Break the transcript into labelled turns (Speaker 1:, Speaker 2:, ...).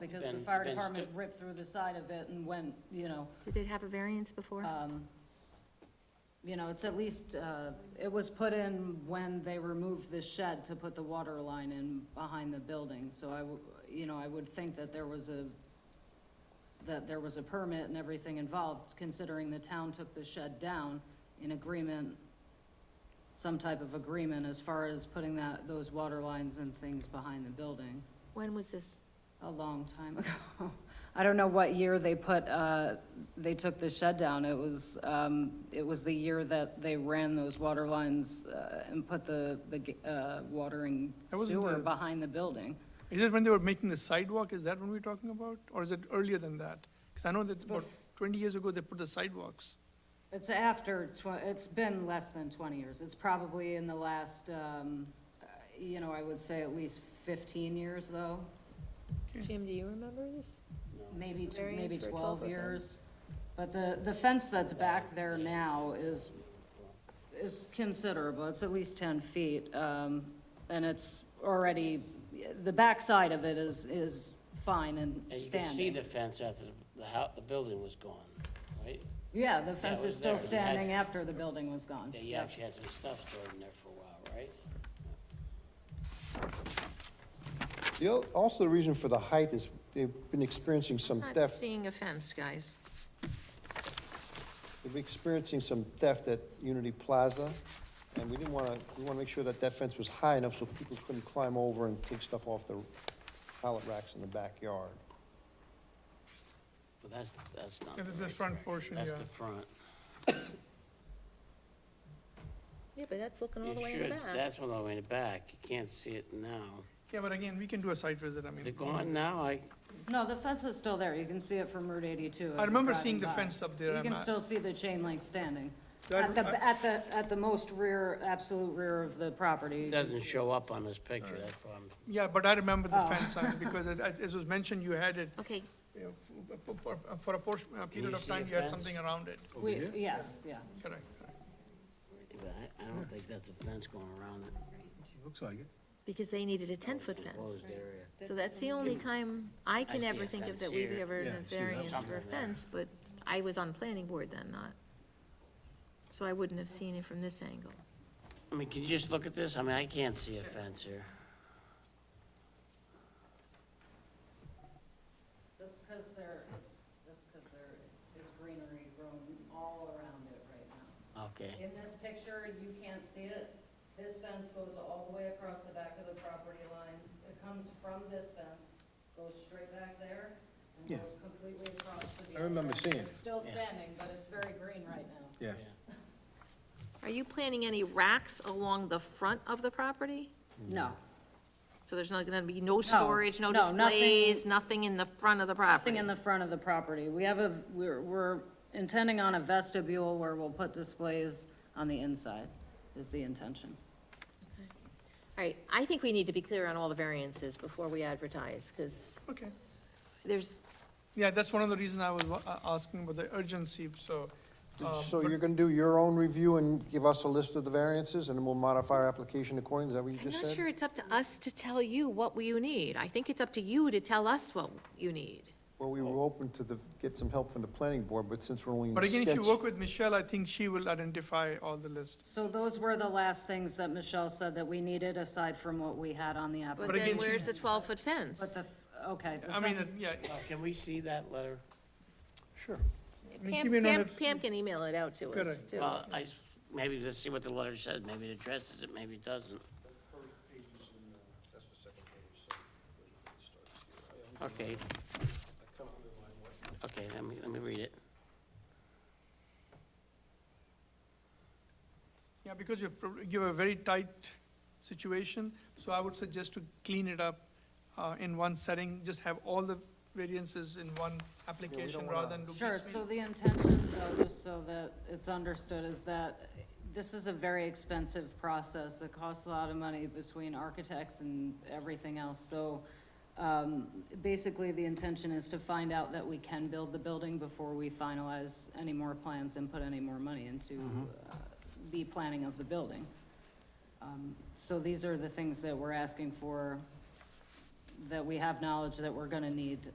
Speaker 1: because the
Speaker 2: Then-
Speaker 1: fire
Speaker 2: then
Speaker 1: department
Speaker 2: sti-
Speaker 1: ripped through the side of it and went, you know,
Speaker 3: Did it have a variance before?
Speaker 4: Uh,
Speaker 1: um, you know, it's at least, uh, it was put in when they removed the shed to put the water line in behind the building, so I, w- you know, I would think that there was a, that there was a permit and everything involved, considering the town took the shed down in agreement, some type of agreement as far as putting that, those water lines and things behind the building
Speaker 3: When was this?
Speaker 1: a long time ago. I don't know what year they put, uh, they took the shed down. It was, um, it was the year that they ran those water lines, uh, and put the, the, g- uh, watering
Speaker 5: That was
Speaker 1: sewer
Speaker 5: the-
Speaker 1: behind the building.
Speaker 5: Is it when they were making the sidewalk, is that when we're talking about, or is it earlier than that? Because I know that about twenty years ago, they put the sidewalks.
Speaker 1: It's after tw- it's been less than twenty years. It's probably in the last, um, uh, you know, I would say at least fifteen years though,
Speaker 4: Jim, do you remember this?
Speaker 1: maybe, tw-
Speaker 4: Variance
Speaker 1: maybe
Speaker 4: for
Speaker 1: twelve
Speaker 4: 12 of them.
Speaker 1: years. But the, the fence that's back there now is is considerable, it's at least ten feet, um, and it's already, the backside of it is, is fine and
Speaker 2: And you could see
Speaker 1: standing.
Speaker 2: the fence after the- the house, the building was gone, right?
Speaker 1: Yeah, the fence is
Speaker 2: was
Speaker 1: still
Speaker 2: there. You had-
Speaker 1: standing after the building was gone.
Speaker 2: Yeah, you actually had some stuff stored in there for a while, right?
Speaker 6: The, al- also the reason for the height is they've been experiencing some
Speaker 3: Not
Speaker 6: theft,
Speaker 3: seeing a fence, guys.
Speaker 6: they've been experiencing some theft at Unity Plaza. And we didn't want to, we want to make sure that that fence was high enough so people couldn't climb over and take stuff off the pallet racks in the backyard.
Speaker 2: But that's, that's not.
Speaker 5: Yeah, this is uh, the
Speaker 2: right
Speaker 5: front
Speaker 2: direction.
Speaker 5: portion, yeah.
Speaker 2: That's the front.
Speaker 4: Yeah, but that's looking all
Speaker 2: You
Speaker 4: the way in the
Speaker 2: should,
Speaker 4: back.
Speaker 2: that's all the way in the back. You can't see it now.
Speaker 5: Yeah, but again, we can do a site visit, I mean.
Speaker 2: Is it gone now? I,
Speaker 1: No, the fence is still there, you can see it from Route eighty-two.
Speaker 5: I remember
Speaker 1: if you're
Speaker 5: seeing the
Speaker 1: driving by.
Speaker 5: fence up there.
Speaker 1: You
Speaker 5: I'm
Speaker 1: can
Speaker 5: not-
Speaker 1: still see the chain link standing.
Speaker 5: I-
Speaker 1: At the, at the, at the most rear, absolute rear of the property.
Speaker 2: it doesn't show up on this picture, that's why I'm,
Speaker 5: Yeah, but I remember
Speaker 1: Oh.
Speaker 5: the fence, I mean, because it- it- as was mentioned, you had it,
Speaker 3: Okay,
Speaker 5: you know, for- for for a portion, a period
Speaker 2: you
Speaker 5: of
Speaker 2: see the
Speaker 5: time, you had
Speaker 2: fence?
Speaker 5: something around it.
Speaker 1: We- Yes, yeah.
Speaker 5: Correct.
Speaker 2: I, I don't think that's a fence going around it.
Speaker 7: Looks like it.
Speaker 3: because they needed a ten-foot fence.
Speaker 2: Enclosed area.
Speaker 3: So that's the only time I can
Speaker 2: see
Speaker 3: ever
Speaker 2: a
Speaker 3: think of
Speaker 2: fence
Speaker 3: that we've
Speaker 2: here.
Speaker 3: ever
Speaker 7: Yeah,
Speaker 3: had
Speaker 7: I
Speaker 3: a
Speaker 7: see that.
Speaker 3: variance for a
Speaker 2: Something there.
Speaker 3: fence, but I was on planning board then, not. So I wouldn't have seen it from this angle.
Speaker 2: I mean, can you just look at this? I mean, I can't see a fence here.
Speaker 1: That's because there, it's, that's because there is greenery growing all around it right now.
Speaker 2: Okay.
Speaker 1: In this picture, you can't see it. This fence goes all the way across the back of the property line. It comes from this fence, goes straight back there,
Speaker 7: Yeah.
Speaker 1: and goes completely across to the.
Speaker 7: I remember
Speaker 1: other.
Speaker 7: seeing it.
Speaker 1: It's still standing, but it's very green right now.
Speaker 7: Yeah.
Speaker 3: Are you planning any racks along the front of the property?
Speaker 1: No,
Speaker 3: So there's not gonna be no storage, no
Speaker 1: no, nothing-
Speaker 3: displays, nothing in the front of the property?
Speaker 1: Nothing in the front of the property. We have a, we're, we're intending on a vestibule where we'll put displays on the inside, is the intention.
Speaker 3: All right, I think we need to be clear on all the variances before we advertise, because
Speaker 5: Okay.
Speaker 3: there's,
Speaker 5: Yeah, that's one of the reasons I was wa- a- asking about the urgency, so. um,
Speaker 6: So
Speaker 5: but-
Speaker 6: you're going to do your own review and give us a list of the variances and then we'll modify our application accordingly? Is that what you
Speaker 3: I'm
Speaker 6: just said?
Speaker 3: not sure it's up to us to tell you what you need. I think it's up to you to tell us what you need.
Speaker 6: Well, we were open to the, get some help from the planning board, but since we're only in
Speaker 5: But again, if you
Speaker 6: sketch-
Speaker 5: work with Michelle, I think she will identify all the list.
Speaker 1: So those were the last things that Michelle said that we needed aside from what we had on the
Speaker 3: But
Speaker 1: application.
Speaker 3: then
Speaker 5: again, she-
Speaker 3: where's the 12-foot
Speaker 1: But
Speaker 3: fence?
Speaker 1: the, okay. the
Speaker 5: I mean,
Speaker 1: fence-
Speaker 5: it's- yeah,
Speaker 2: Uh, Can we see that letter?
Speaker 6: Sure.
Speaker 5: I mean, she
Speaker 3: Pam,
Speaker 5: may not
Speaker 3: Pam,
Speaker 5: have-
Speaker 3: Pam can email it out to us,
Speaker 5: Correct.
Speaker 3: too.
Speaker 2: Well, I, maybe let's see what the letter says, maybe it addresses it, maybe it doesn't. Okay. Okay, let me, let me read it.
Speaker 5: Yeah, because you prob- you have a very tight situation, so I would suggest to clean it up uh, in one setting, just have all the variances in one application rather than do
Speaker 1: Sure,
Speaker 5: piecemeal.
Speaker 1: so the intention, though, just so that it's understood, is that this is a very expensive process. It costs a lot of money between architects and everything else. So um, basically, the intention is to find out that we can build the building before we finalize any more plans and put any more money into uh, the planning of the building. Um, So these are the things that we're asking for, that we have knowledge that we're gonna need